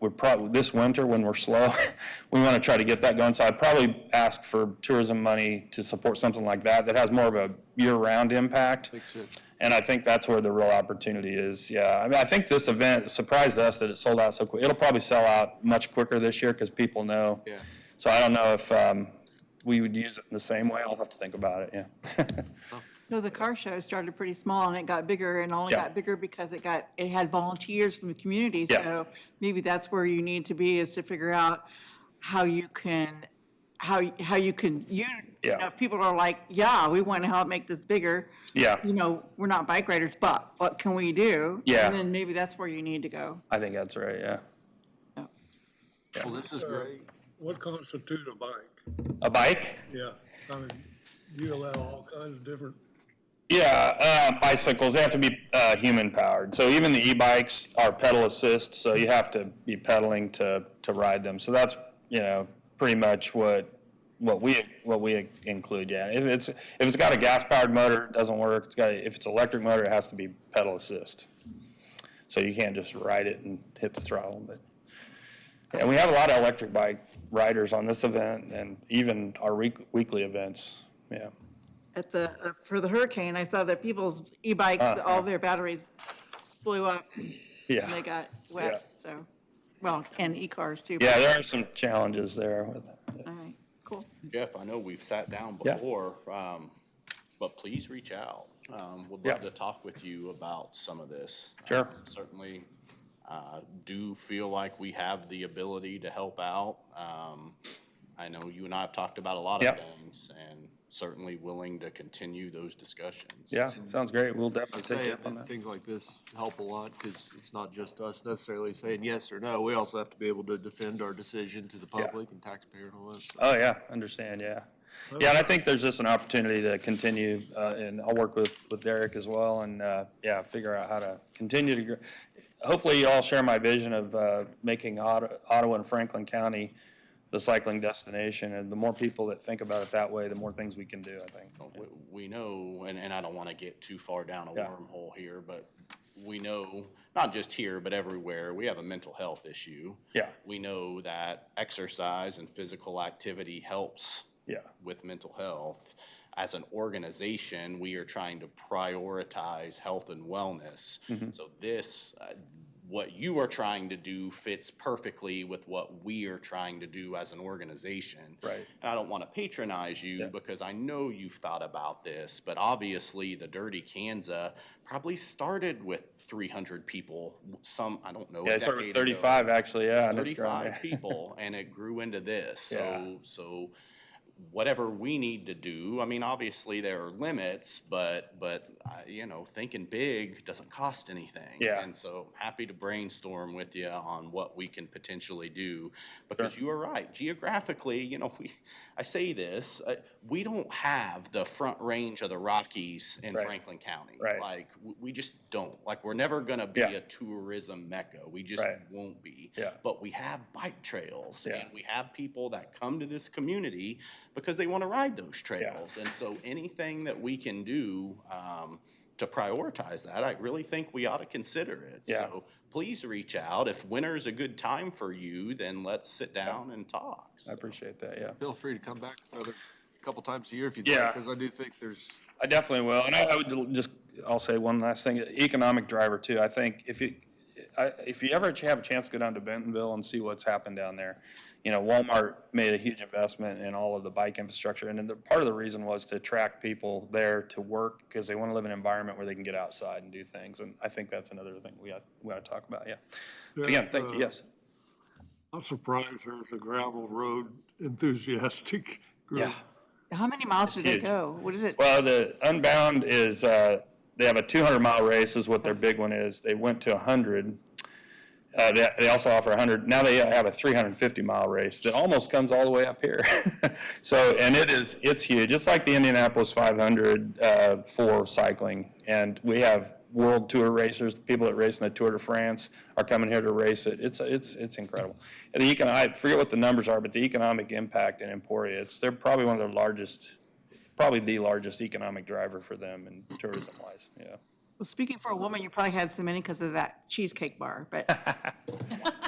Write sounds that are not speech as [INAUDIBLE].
would probably, this winter when we're slow, [LAUGHS] we want to try to get that going. So I'd probably ask for tourism money to support something like that, that has more of a year-round impact. And I think that's where the real opportunity is, yeah. I mean, I think this event surprised us that it sold out so quick. It'll probably sell out much quicker this year because people know. Yeah. So I don't know if um, we would use it in the same way. I'll have to think about it, yeah. [LAUGHS] So the car show started pretty small and it got bigger and only Yeah. got bigger because it got, it had volunteers from the community. Yeah. So maybe that's where you need to be is to figure out how you can, how, how you can, you, you Yeah. know, if people are like, yeah, we want to help make this bigger. Yeah. You know, we're not bike riders, but what can we do? Yeah. And then maybe that's where you need to go. I think that's right, yeah. Well, this is great. What constitute a bike? A bike? Yeah, I mean, you allow all kinds of different, Yeah, uh, bicycles, they have to be uh, human powered. So even the e-bikes are pedal assist, so you have to be pedaling to, to ride them. So that's, you know, pretty much what, what we, what we include, yeah. If it's, if it's got a gas powered motor, it doesn't work. It's got, if it's electric motor, it has to be pedal assist. So you can't just ride it and hit the throttle, but. And we have a lot of electric bike riders on this event and even our week, weekly events, yeah. At the, uh, for the hurricane, I saw that people's Uh-huh. e-bikes, all their batteries blew up Yeah. and they got wet. So, well, and e-cars too. but- Yeah, there are some challenges there with it. All right, cool. Jeff, I know we've sat down Yeah. before, um, but please reach out. Um, would Yeah. love to talk with you about some of this. Sure. Um, Certainly, uh, do feel like we have the ability to help out. Um, I know you and I have talked about a lot of Yeah. things and certainly willing to continue those discussions. Yeah, sounds great. We'll definitely take say you it, up on and that. things like this help a lot, because it's not just us necessarily saying yes or no. We also have to be able to defend our decision to the public and taxpayer and all that stuff. Oh, yeah, understand, yeah. Yeah, and I think there's just an opportunity to continue, uh, and I'll work with, with Derek as well, and, uh, yeah, figure out how to continue to, gr- hopefully you all share my vision of, uh, making Ottawa, Ottawa and Franklin County the cycling destination, and the more people that think about it that way, the more things we can do, I think. We, we know, and, and I don't want to get too far down a Yeah. wormhole here, but we know, not just here, but everywhere, we have a mental health issue. Yeah. We know that exercise and physical activity helps Yeah, with mental health. As an organization, we are trying to prioritize health and wellness. Mm-hmm. So this, uh, what you are trying to do fits perfectly with what we are trying to do as an organization. Right. And I don't want to patronize you because I know you've thought about this, but obviously the Dirty Kanza probably started with 300 people. Some I don't know. a yeah, it's over decade ago. thirty-five, actually, yeah. and it's grown, yeah. [LAUGHS] 35 people and it grew into this. Yeah. So, so whatever we need to do, I mean, obviously there are limits, but, but, uh, you know, thinking big doesn't cost anything. Yeah. And so I'm happy to brainstorm with you on what we can potentially do because you are right. Geographically, you know, we, I say this, uh, we don't have the front range of the Rockies in Right. Franklin County. Right. Like, we, we just don't. Like, we're never going to be Yeah. a tourism mecca. We just Right. won't be. Yeah. But we have bike trails Yeah. and we have people that come to this community because they want to ride those trails. And so anything that we can do um, to prioritize that, I really think we ought to consider it. Yeah. So please reach out. If winter's a good time for you, then let's sit down and talk. I So- appreciate that, yeah. Feel free to come back another couple times a year if you'd Yeah. like, because I do think there's, I definitely will, and I, I would just, I'll say one last thing, economic driver too, I think if you, I, if you ever have a chance to go down to Bentonville and see what's happened down there, you know, Walmart made a huge investment in all of the bike infrastructure, and then the, part of the reason was to attract people there to work, because they want to live in an environment where they can get outside and do things, and I think that's another thing we ought, we ought to talk about, yeah. But Again, thank you, uh, yes, I'm surprised there's a gravel road enthusiastic group. yeah. How many miles do they huge. go? What is it? Well, the Unbound is, uh, they have a 200 mile race is what their big one is. They went to 100. Uh, they, they also offer 100. Now they have a 350 mile race that almost comes all the way up here. [LAUGHS] so, and it is, it's huge. It's like the Indianapolis 500 uh, for cycling. And we have world tour racers, the people that race in the Tour de France are coming here to race it. It's, it's, it's incredible. And the econ- I forget what the numbers are, but the economic impact in Emporia, it's, they're probably one of their largest probably the largest economic driver for them in tourism wise, yeah. Well, speaking for a woman, you probably had so many because of that cheesecake bar, but